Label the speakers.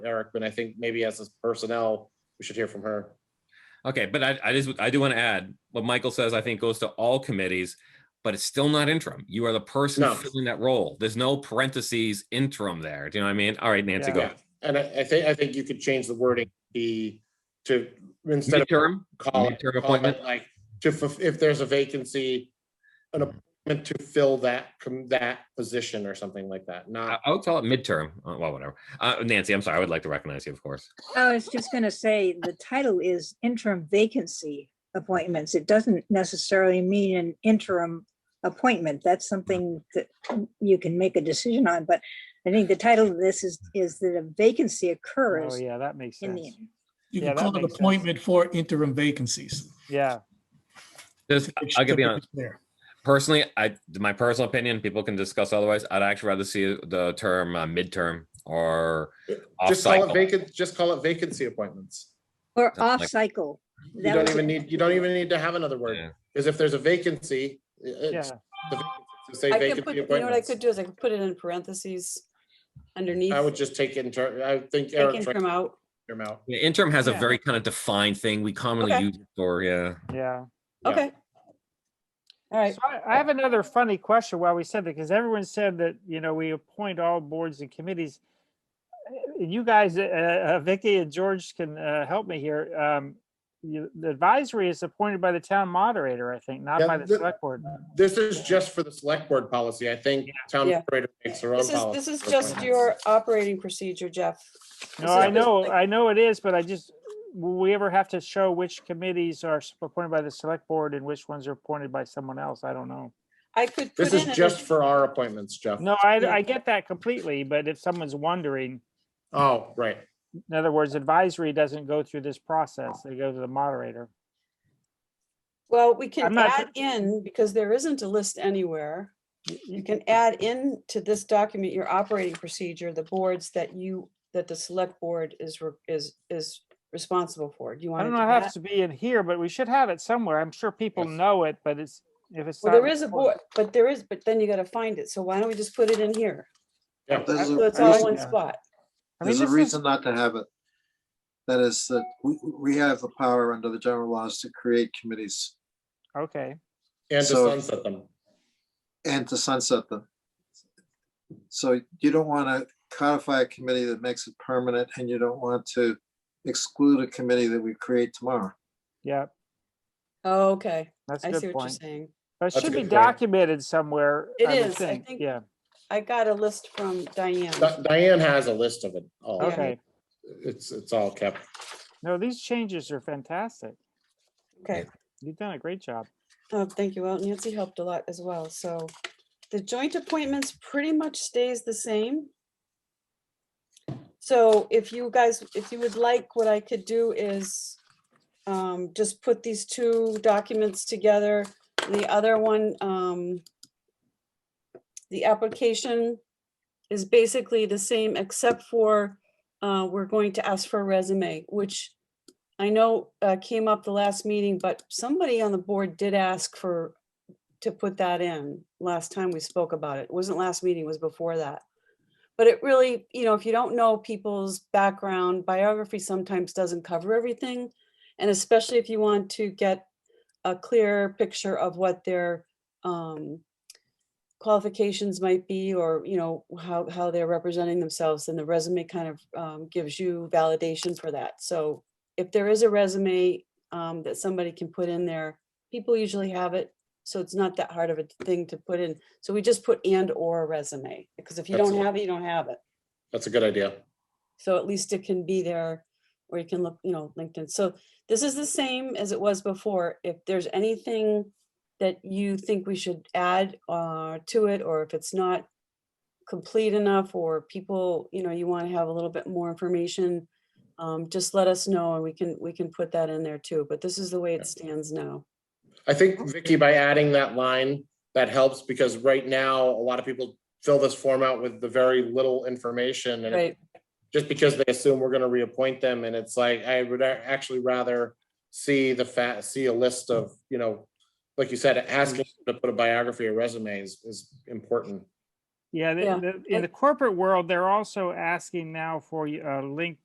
Speaker 1: Eric, but I think maybe as a personnel, we should hear from her.
Speaker 2: Okay, but I, I just, I do want to add, what Michael says, I think goes to all committees, but it's still not interim. You are the person
Speaker 1: No.
Speaker 2: filling that role. There's no parentheses interim there. Do you know what I mean? All right, Nancy, go.
Speaker 1: Yeah, And I, I think, I think you could change the wording, be to, instead of
Speaker 2: Midterm,
Speaker 1: call it,
Speaker 2: midterm
Speaker 1: call
Speaker 2: appointment?
Speaker 1: it like, to, fulf- if there's a vacancy, an appointment to fill that, com- that position or something like that,
Speaker 2: I,
Speaker 1: not,
Speaker 2: I would call it midterm. Uh, Well, whatever. Uh, Nancy, I'm sorry. I would like to recognize you, of course.
Speaker 3: I was just gonna say, the title is interim vacancy appointments. It doesn't necessarily mean an interim appointment. That's something that you can make a decision on, but I think the title of this is, is that a vacancy
Speaker 4: Oh,
Speaker 3: occurs
Speaker 4: yeah, that makes
Speaker 3: in the
Speaker 4: sense.
Speaker 3: interim.
Speaker 5: You
Speaker 4: Yeah,
Speaker 5: can
Speaker 4: that
Speaker 5: call it
Speaker 4: makes sense.
Speaker 5: appointment for interim vacancies.
Speaker 4: Yeah,
Speaker 2: This,
Speaker 5: It
Speaker 2: I'll
Speaker 5: should
Speaker 2: be
Speaker 5: be
Speaker 2: honest.
Speaker 5: clear.
Speaker 2: personally, I my personal opinion, people can discuss otherwise. I'd actually rather see the term uh, midterm or off
Speaker 1: just call it
Speaker 2: cycle.
Speaker 1: vacant, just call it vacancy appointments.
Speaker 3: Or
Speaker 2: Something like-
Speaker 3: off-cycle.
Speaker 1: You
Speaker 3: That
Speaker 1: don't
Speaker 3: was-
Speaker 1: even need, you don't even need to have another
Speaker 2: Yeah.
Speaker 1: word, because if there's a vacancy, i-
Speaker 4: yeah,
Speaker 1: it's, the vacancy, say
Speaker 6: I could put,
Speaker 1: vacancy
Speaker 6: you know what I
Speaker 1: appointments.
Speaker 6: could do is I could put it in parentheses underneath,
Speaker 1: I would just take inter, I think
Speaker 6: take
Speaker 1: Eric
Speaker 6: interim out.
Speaker 1: him out.
Speaker 2: Yeah, interim has a
Speaker 4: Yeah.
Speaker 2: very kind of defined thing. We commonly
Speaker 6: Okay.
Speaker 2: use it for yeah.
Speaker 4: yeah.
Speaker 1: Yeah.
Speaker 6: Okay. All right,
Speaker 4: So I- I have another funny question while we said that, because everyone said that, you know, we appoint all boards and committees. Uh, You guys, uh, uh, Vicky and George can uh, help me here. Um, you- The advisory is appointed by the town moderator, I think, not
Speaker 1: Yeah,
Speaker 4: by the
Speaker 1: the-
Speaker 4: select board.
Speaker 1: This is just for the select board policy. I think town
Speaker 6: Yeah.
Speaker 1: operator makes their own
Speaker 6: this is,
Speaker 1: policy.
Speaker 6: this is just your operating procedure, Jeff. This
Speaker 4: No, I
Speaker 6: is-
Speaker 4: know, I know it is, but I just, will we ever have to show which committees are s- appointed by the select board and which ones are appointed by someone else? I don't know.
Speaker 6: I could put
Speaker 1: This
Speaker 6: in,
Speaker 1: is just
Speaker 6: an-
Speaker 1: for our appointments, Jeff.
Speaker 4: No, I,
Speaker 6: Yeah.
Speaker 4: I get that completely, but if someone's wondering,
Speaker 1: Oh, right.
Speaker 4: in other words, advisory doesn't go through this process, they go to the moderator.
Speaker 6: well, we
Speaker 4: I'm
Speaker 6: can
Speaker 4: not
Speaker 6: add in, because there isn't a list anywhere. You can add in to this document, your operating procedure, the boards that you, that the select board is, re- is, is responsible for. Do
Speaker 4: I
Speaker 6: you want to
Speaker 4: don't
Speaker 6: do
Speaker 4: know, it has to
Speaker 6: that?
Speaker 4: be in here, but we should have it somewhere. I'm sure people
Speaker 2: Yes.
Speaker 4: know it, but it's, if it's.
Speaker 6: Well,
Speaker 4: not
Speaker 6: there is a board,
Speaker 4: recorded-
Speaker 6: but there is, but then you gotta find it, so why don't we just put it in here?
Speaker 1: Yeah.
Speaker 7: There's
Speaker 6: So
Speaker 7: a
Speaker 6: it's all
Speaker 4: reason-
Speaker 6: one
Speaker 4: Yeah.
Speaker 6: spot.
Speaker 4: I mean,
Speaker 7: There's a
Speaker 4: this is-
Speaker 7: reason not to have it. That is that we, we have the power under the general laws to create committees
Speaker 4: Okay,
Speaker 1: And to
Speaker 7: So-
Speaker 1: sunset them.
Speaker 7: and to sunset them. So you don't want to codify a committee that makes it permanent and you don't want to exclude a committee that we create tomorrow.
Speaker 4: yeah,
Speaker 6: Oh, Okay,
Speaker 4: that's a
Speaker 6: I see
Speaker 4: good
Speaker 6: what you're
Speaker 4: point.
Speaker 6: saying.
Speaker 4: But
Speaker 1: That's a
Speaker 4: it should
Speaker 1: good
Speaker 4: be
Speaker 1: point.
Speaker 4: documented somewhere.
Speaker 6: It
Speaker 4: I would
Speaker 6: is, I think-
Speaker 4: Yeah,
Speaker 6: I got a list from Diane.
Speaker 1: Di- Diane has a list of it all.
Speaker 4: okay.
Speaker 1: It's, it's all kept.
Speaker 4: No, these changes are fantastic.
Speaker 6: Okay,
Speaker 4: You've done a great job.
Speaker 6: oh, thank you. Well, Nancy helped a lot as well, so the joint appointments pretty much stays the same. So if you guys, if you would like, what I could do is um, just put these two documents together. The other one, um, the application is basically the same except for uh, we're going to ask for a resume, which I know uh, came up the last meeting, but somebody on the board did ask for, to put that in last time we spoke about it. It wasn't last meeting, it was before that. But it really, you know, if you don't know people's background, biography sometimes doesn't cover everything. And especially if you want to get a clearer picture of what their um, qualifications might be, or, you know, how, how they're representing themselves, then the resume kind of um, gives you validation for that. So if there is a resume um, that somebody can put in there, people usually have it. So it's not that hard of a thing to put in. So we just put and or resume, because if you don't
Speaker 1: Excellent.
Speaker 6: have it, you don't have it.
Speaker 1: That's a good idea.
Speaker 6: So at least it can be there, or you can look, you know, LinkedIn. So this is the same as it was before. If there's anything that you think we should add uh, to it, or if it's not complete enough, or people, you know, you want to have a little bit more information, um, just let us know and we can, we can put that in there too. But this is the way it stands now.
Speaker 1: I think Vicky, by adding that line, that helps because right now, a lot of people fill this form out with the very little information and it
Speaker 6: Right,
Speaker 1: just because they assume we're gonna reappoint them, and it's like, I would a- actually rather see the fat, see a list of, you know, like you said, asking to put a biography or resume is, is important.
Speaker 4: Yeah, the-
Speaker 6: Yeah,
Speaker 4: the- in
Speaker 6: I-
Speaker 4: the corporate world, they're also asking now for y- a link